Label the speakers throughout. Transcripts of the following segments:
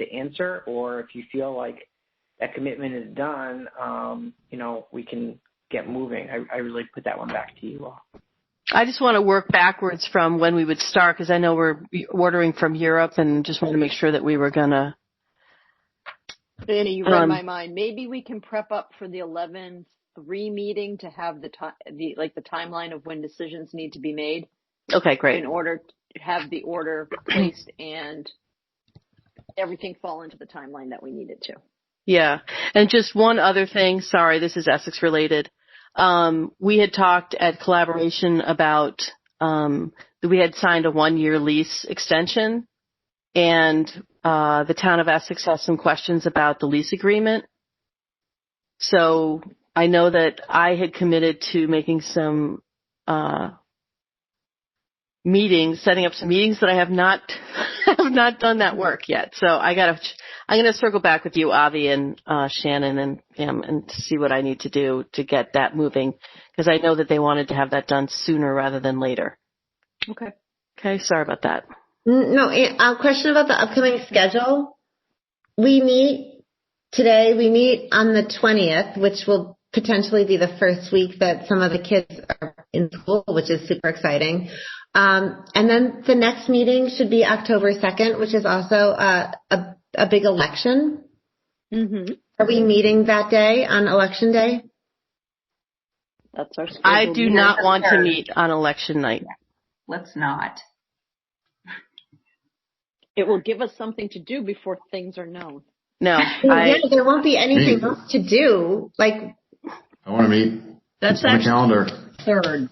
Speaker 1: to answer, or if you feel like that commitment is done, um, you know, we can get moving. I, I really put that one back to you all.
Speaker 2: I just want to work backwards from when we would start because I know we're ordering from Europe and just want to make sure that we were gonna.
Speaker 3: Annie, you read
Speaker 2: Um,
Speaker 3: my mind. Maybe we can prep up for the eleven three meeting to have the time, the like the timeline of when decisions need to be made
Speaker 2: Okay, great.
Speaker 3: in order to have the order placed and everything fall into the timeline that we need it to.
Speaker 2: Yeah. And just one other thing, sorry, this is Essex related. Um, we had talked at collaboration about um, that we had signed a one year lease extension and uh, the town of Essex has some questions about the lease agreement. So I know that I had committed to making some uh, meetings, setting up some meetings that I have not have not done that work yet. So I gotta I'm going to circle back with you, Avi and uh, Shannon and Pam, and see what I need to do to get that moving because I know that they wanted to have that done sooner rather than later.
Speaker 3: Okay.
Speaker 2: Okay, sorry about that.
Speaker 4: N- No, eh, a question about the upcoming schedule. We meet today, we meet on the 20th, which will potentially be the first week that some of the kids are in school, which is super exciting. Um, and then the next meeting should be October 2nd, which is also uh, a, a big election.
Speaker 3: Mm-hmm.
Speaker 4: Are we meeting that day on election day?
Speaker 3: That's our.
Speaker 2: I
Speaker 3: scheduled
Speaker 2: do
Speaker 3: meeting.
Speaker 2: not want to meet on election night.
Speaker 5: Let's not.
Speaker 3: It will give us something to do before things are known.
Speaker 2: No,
Speaker 4: yeah,
Speaker 2: I,
Speaker 4: there won't be anything
Speaker 6: Me.
Speaker 4: else to do. Like,
Speaker 6: I want to meet.
Speaker 5: That's
Speaker 6: It's on my
Speaker 5: actually
Speaker 6: calendar.
Speaker 5: third.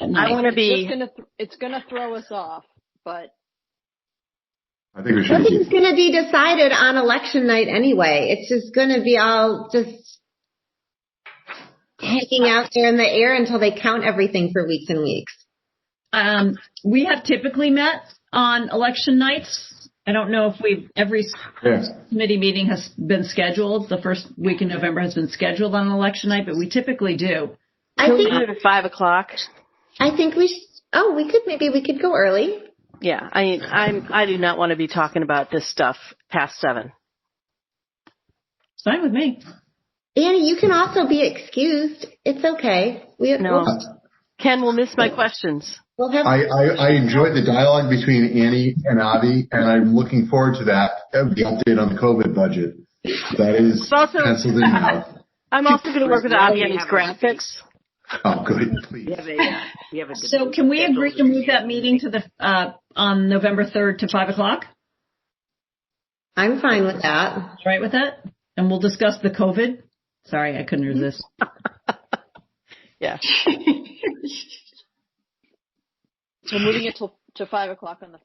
Speaker 2: I want to
Speaker 3: It's
Speaker 2: be.
Speaker 3: gonna th- it's gonna throw us off, but
Speaker 6: I think we should.
Speaker 4: nothing's going to be decided on election night anyway. It's just going to be all just hanging out there in the air until they count everything for weeks and weeks.
Speaker 5: Um, we have typically met on election nights. I don't know if we've, every
Speaker 6: Yeah.
Speaker 5: committee meeting has been scheduled. The first week in November has been scheduled on election night, but we typically do.
Speaker 4: I
Speaker 2: Can we do
Speaker 4: think
Speaker 2: it at five o'clock?
Speaker 4: I think we should, oh we could maybe we could go early.
Speaker 2: Yeah, I I'm I do not want to be talking about this stuff past seven.
Speaker 5: It's fine with me.
Speaker 4: Annie, you can also be excused. It's okay. We
Speaker 2: No,
Speaker 4: we'll,
Speaker 2: Ken will miss my questions.
Speaker 4: we'll have
Speaker 6: I, I, I enjoyed the dialogue between Annie and Avi, and I'm looking forward to that. uh, The update on the COVID budget. That is
Speaker 2: It's also-
Speaker 6: penciled in now.
Speaker 2: I'm also going to work with Avi on his graphics.
Speaker 6: Oh, good. Please.
Speaker 1: We have a, uh, we have a
Speaker 5: So can we agree to move that meeting to the, uh, on November 3rd to 5 o'clock?
Speaker 4: I'm fine with that.
Speaker 5: All right with that? And we'll discuss the COVID. Sorry, I couldn't resist.
Speaker 2: Yeah.
Speaker 3: we're moving it till to five o'clock on the.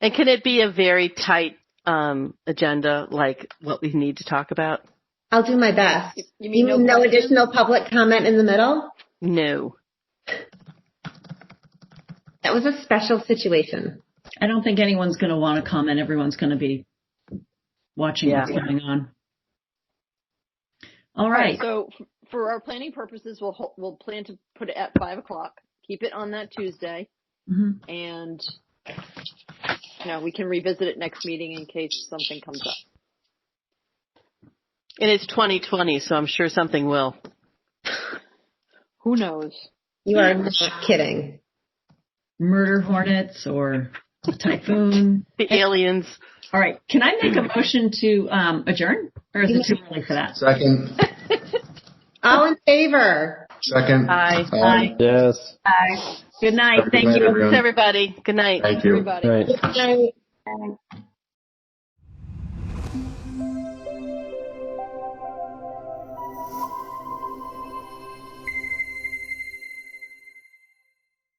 Speaker 2: And can it be a very tight um, agenda, like what we need to talk about?
Speaker 4: I'll do my best.
Speaker 3: You, you
Speaker 4: You
Speaker 3: mean
Speaker 4: mean no
Speaker 3: questions?
Speaker 4: additional public comment in the middle?
Speaker 2: No.
Speaker 4: That was a special situation.
Speaker 5: I don't think anyone's going to want to comment. Everyone's going to be watching what's
Speaker 2: Yeah.
Speaker 5: going on. All
Speaker 3: All right.
Speaker 5: right.
Speaker 3: So f- for our planning purposes, we'll ho- we'll plan to put it at five o'clock. Keep it on that Tuesday, Mm-hmm.
Speaker 5: Mhm.
Speaker 3: and you know we can revisit it next meeting in case something comes up.
Speaker 2: And it's 2020, so I'm sure something will.
Speaker 3: Who knows?
Speaker 4: You are not kidding.
Speaker 5: Murder hornets or typhoon.
Speaker 2: The aliens.
Speaker 5: All right. Can I make a motion to um, adjourn or is it too early for that?
Speaker 6: Second,
Speaker 4: All in favor?
Speaker 6: second.
Speaker 2: Aye.
Speaker 6: Um,
Speaker 5: Aye.
Speaker 7: Yes.
Speaker 5: Good night.
Speaker 6: Have a good
Speaker 5: Thank
Speaker 6: night,
Speaker 5: you.
Speaker 6: everyone.
Speaker 2: Everybody, good night.
Speaker 6: Thank you.
Speaker 3: Everybody.
Speaker 7: Right.
Speaker 4: Good night.